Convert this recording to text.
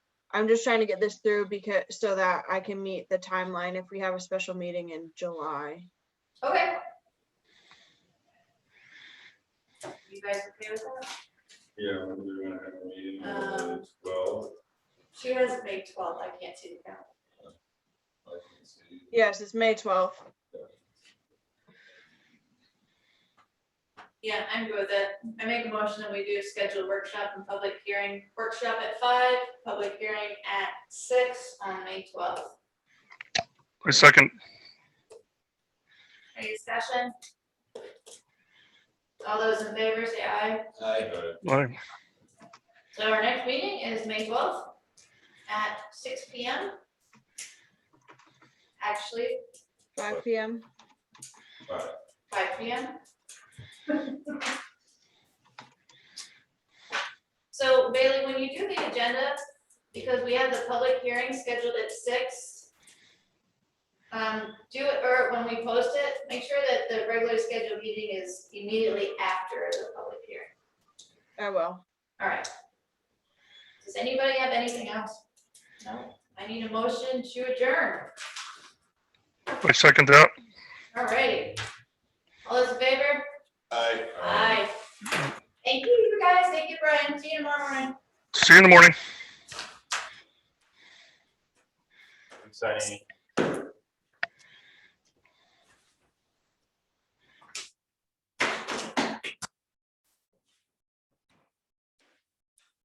I'm just trying to get this through because, so that I can meet the timeline if we have a special meeting in July. Okay. You guys okay with that? Yeah, when do we wanna have a meeting Um, on the twelfth? She has May twelfth, I can't see the calendar. I can see. Yes, it's May twelfth. Yeah, I'm good with it. I make a motion that we do schedule workshop and public hearing, workshop at five, public hearing at six on May twelfth. I second. Any discussion? All those in favor, say aye. Aye. Aye. So our next meeting is May twelfth at six P M. Actually, Five PM. Aye. five P M. So Bailey, when you do the agenda, because we have the public hearing scheduled at six, um, do it, or when we post it, make sure that the regular scheduled meeting is immediately after the public hearing. I will. All right. Does anybody have anything else? No. I need a motion to adjourn. I second that. All righty. All those in favor? Aye. Aye. Thank you, you guys. Thank you, Brian. See you tomorrow morning. See you in the morning. Exciting.